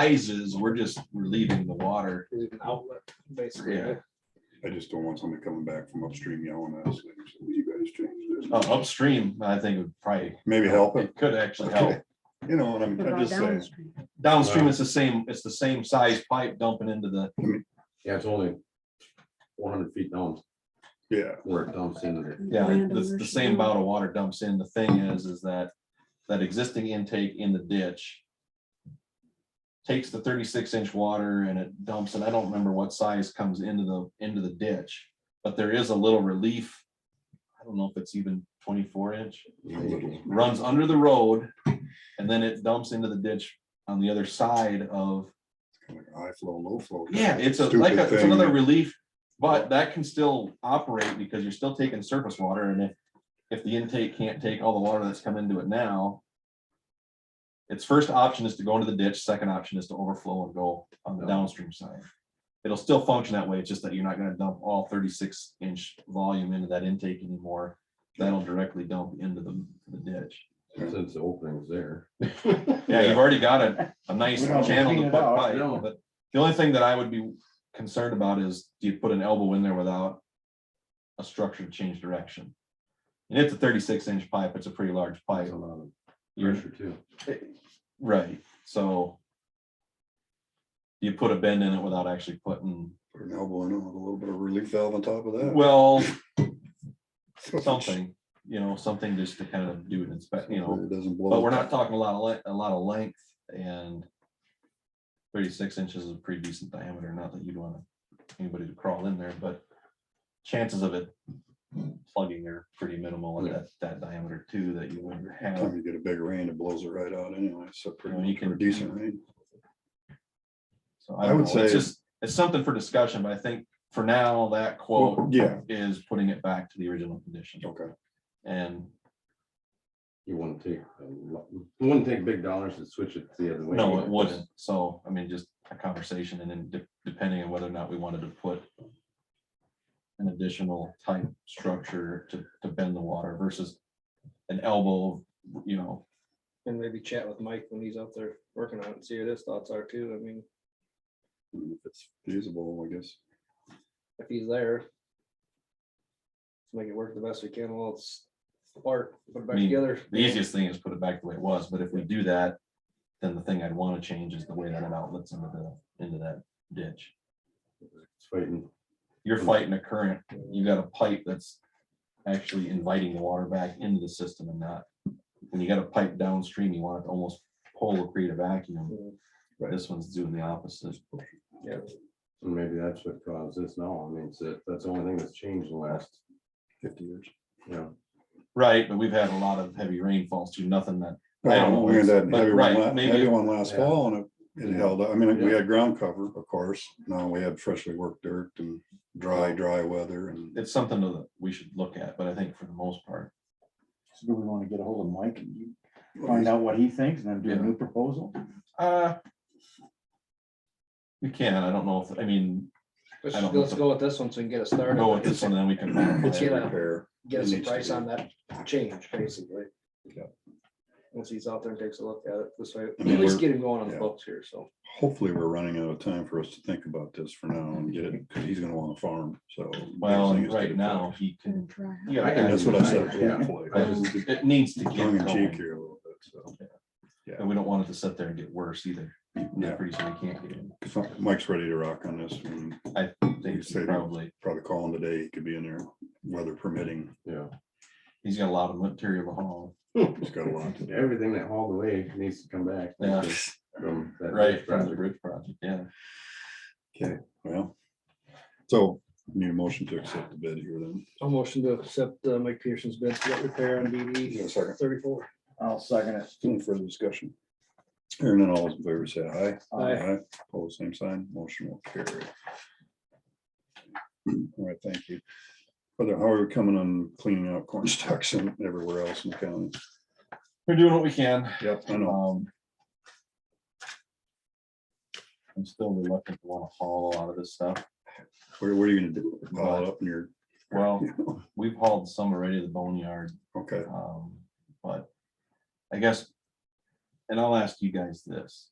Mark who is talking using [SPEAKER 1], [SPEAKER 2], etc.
[SPEAKER 1] sizes, we're just, we're leaving the water.
[SPEAKER 2] Leave an outlet, basically.
[SPEAKER 1] Yeah.
[SPEAKER 3] I just don't want somebody coming back from upstream yelling at us, like, "So you guys changed
[SPEAKER 1] Uh,
[SPEAKER 3] this.
[SPEAKER 1] Upstream, I think would probably,
[SPEAKER 3] Maybe help it,
[SPEAKER 1] it could actually help.
[SPEAKER 3] you know, what I'm,
[SPEAKER 4] What
[SPEAKER 3] I'm
[SPEAKER 4] about
[SPEAKER 3] just saying,
[SPEAKER 4] downstream?
[SPEAKER 1] Downstream, it's the same, it's the same size pipe dumping into the,
[SPEAKER 5] Yeah, it's only one hundred feet down
[SPEAKER 3] yeah,
[SPEAKER 5] where it dumps into there.
[SPEAKER 1] yeah, the, the
[SPEAKER 4] Landowners
[SPEAKER 1] same
[SPEAKER 4] know.
[SPEAKER 1] bout of water dumps in. The thing is, is that, that existing intake in the ditch takes the thirty-six inch water and it dumps, and I don't remember what size comes into the, into the ditch, but there is a little relief. I don't know if it's even twenty-four inch.
[SPEAKER 3] a little.
[SPEAKER 1] runs under the road and then it dumps into the ditch on the other side of,
[SPEAKER 3] Like High flow, low flow.
[SPEAKER 1] yeah, it's a,
[SPEAKER 3] Stupid
[SPEAKER 1] like, a- it's
[SPEAKER 3] thing.
[SPEAKER 1] another relief. But that can still operate because you're still taking surface water and if, if the intake can't take all the water that's come into it now. Its first option is to go into the ditch, second option is to overflow and go on the downstream side. It'll still function that way, it's just that you're not gonna dump all thirty-six inch volume into that intake anymore. That'll directly dump into the, the ditch.
[SPEAKER 5] Since the opening's there.
[SPEAKER 1] Yeah, you've already got a, a nice
[SPEAKER 6] We don't
[SPEAKER 1] channel to
[SPEAKER 6] clean
[SPEAKER 1] put
[SPEAKER 6] it out,
[SPEAKER 1] pipe,
[SPEAKER 5] no.
[SPEAKER 1] but the only thing that I would be concerned about is, do you put an elbow in there without a structure to change direction? And it's a thirty-six inch pipe, it's a pretty large
[SPEAKER 5] It's
[SPEAKER 1] pipe,
[SPEAKER 5] a lot of
[SPEAKER 1] You're-
[SPEAKER 5] pressure too.
[SPEAKER 1] right, so you put a bend in it without actually putting,
[SPEAKER 3] Put an elbow in it with a little bit of relief valve on top of that.
[SPEAKER 1] well,
[SPEAKER 3] So
[SPEAKER 1] something, you know, something just to kind of do an inspect, you know.
[SPEAKER 3] It doesn't blow.
[SPEAKER 1] But we're not talking a lot of length, a lot of length and thirty-six inches is a pretty decent diameter, not that you'd want anybody to crawl in there, but chances of it plugging are pretty minimal at
[SPEAKER 5] Yeah.
[SPEAKER 1] that, that diameter too, that you would have.
[SPEAKER 3] Time you get a big rain, it blows it right out anyway, so pretty
[SPEAKER 1] Well, you
[SPEAKER 3] much for
[SPEAKER 1] can-
[SPEAKER 3] a decent rain.
[SPEAKER 1] So
[SPEAKER 3] I
[SPEAKER 1] I would
[SPEAKER 3] would
[SPEAKER 1] say, it's
[SPEAKER 3] say-
[SPEAKER 1] just, it's something for discussion, but I think for now, that
[SPEAKER 3] Well,
[SPEAKER 1] quote
[SPEAKER 3] yeah,
[SPEAKER 1] is putting it back to the original condition.
[SPEAKER 3] okay.
[SPEAKER 1] And
[SPEAKER 5] You wouldn't take, a lot- it wouldn't take big dollars to switch it the other way.
[SPEAKER 1] no, it wouldn't. So, I mean, just a conversation and then de- depending on whether or not we wanted to put an additional type structure to, to bend the water versus an elbow, you know,
[SPEAKER 2] And maybe chat with Mike when he's out there working on it, see what his thoughts are too. I mean,
[SPEAKER 3] And If it's feasible, I guess.
[SPEAKER 2] if he's there. Make it work the best we can while it's apart, put it back
[SPEAKER 1] Me-
[SPEAKER 2] together.
[SPEAKER 1] the easiest thing is put it back the way it was, but if we do that, then the thing I'd want to change is the way that it outlets into the, into that ditch.
[SPEAKER 5] It's fighting.
[SPEAKER 1] You're fighting a current, you got a pipe that's actually inviting the water back into the system and not, when you got a pipe downstream, you want it to almost pull or create a vacuum. This one's doing the opposite.
[SPEAKER 2] Yeah,
[SPEAKER 5] And maybe that's what caused this now. I mean, it's, the- that's the only thing that's changed in the last,
[SPEAKER 3] Fifty years.
[SPEAKER 5] you know,
[SPEAKER 1] Right, but we've had a lot of heavy rainfalls too, nothing that, I don't know,
[SPEAKER 3] Well, We had that
[SPEAKER 1] Um, but
[SPEAKER 3] heavy
[SPEAKER 1] right,
[SPEAKER 3] one, la-
[SPEAKER 1] maybe-
[SPEAKER 3] heavy one last
[SPEAKER 5] yeah.
[SPEAKER 3] fall and it, it held, up. I mean, we
[SPEAKER 5] Yeah.
[SPEAKER 3] had ground cover, of course. Now we had freshly worked dirt and dry, dry weather and
[SPEAKER 1] it's something that we should look at, but I think for the most part,
[SPEAKER 6] So do we want to get a hold of Mike and you find out what he thinks and then do a new proposal?
[SPEAKER 1] uh. We can, I don't know if, I mean, I
[SPEAKER 2] let's,
[SPEAKER 1] don't know.
[SPEAKER 2] let's go with this one so we can get it started.
[SPEAKER 1] go with this one, then we can.
[SPEAKER 3] It's a
[SPEAKER 2] Yeah.
[SPEAKER 3] repair.
[SPEAKER 2] Get us
[SPEAKER 3] It
[SPEAKER 2] a
[SPEAKER 3] needs to
[SPEAKER 2] price
[SPEAKER 3] be.
[SPEAKER 2] on that change, basically.
[SPEAKER 3] Yeah.
[SPEAKER 2] Once he's out there and takes a look at it this way,
[SPEAKER 3] I
[SPEAKER 2] at
[SPEAKER 3] mean,
[SPEAKER 2] least
[SPEAKER 3] we're-
[SPEAKER 2] get him going on the
[SPEAKER 3] yeah.
[SPEAKER 2] books here, so.
[SPEAKER 3] Hopefully, we're running out of time for us to think about this for now and get it, because he's gonna want to farm, so.
[SPEAKER 1] Well,
[SPEAKER 3] next thing is to
[SPEAKER 1] right
[SPEAKER 3] get
[SPEAKER 1] now, he
[SPEAKER 4] Gonna
[SPEAKER 1] can,
[SPEAKER 4] dry out.
[SPEAKER 1] yeah,
[SPEAKER 3] it. And
[SPEAKER 1] I-
[SPEAKER 3] that's what I said.
[SPEAKER 5] Yeah.
[SPEAKER 1] I
[SPEAKER 3] hopefully.
[SPEAKER 1] just, it needs to get
[SPEAKER 3] Tongue in cheek
[SPEAKER 1] going,
[SPEAKER 3] here a little bit, so.
[SPEAKER 1] and we don't want it to sit there and get worse either.
[SPEAKER 3] Yeah.
[SPEAKER 1] Pretty soon we can't get it.
[SPEAKER 3] 'Cause Mike's ready to rock on this. and
[SPEAKER 1] I think
[SPEAKER 3] Say that.
[SPEAKER 1] probably,
[SPEAKER 3] Probably call him today. He could be in there, weather permitting.
[SPEAKER 5] yeah.
[SPEAKER 1] he's got a lot of material to haul.
[SPEAKER 3] He's got a lot. to do.
[SPEAKER 5] Everything that hauled away needs to come back.
[SPEAKER 1] Yeah,
[SPEAKER 5] From that
[SPEAKER 1] right, from the
[SPEAKER 5] project.
[SPEAKER 1] bridge project, yeah.
[SPEAKER 3] Well, so need a motion to accept the bid here then.
[SPEAKER 2] I'll motion to accept uh, Mike Peterson's bid for that repair on
[SPEAKER 3] Is there a
[SPEAKER 2] DD
[SPEAKER 3] second?
[SPEAKER 2] thirty-four.
[SPEAKER 6] I'll second it.
[SPEAKER 3] Any further discussion? Hearing none, all those in favor say aye.
[SPEAKER 2] Aye.
[SPEAKER 3] All the same sign, motion will carry. All right, thank you. Brother, how are we coming on cleaning out corn stalks and everywhere else in the county?
[SPEAKER 1] We're doing what we can.
[SPEAKER 3] Yep. I know.
[SPEAKER 1] Um. I'm still reluctant to want to haul a lot of this stuff.
[SPEAKER 3] Where, where are you gonna do it? Pile it up in your,
[SPEAKER 1] Well, we've hauled some already to the boneyard,
[SPEAKER 3] okay,
[SPEAKER 1] um, but I guess. And I'll ask you guys this.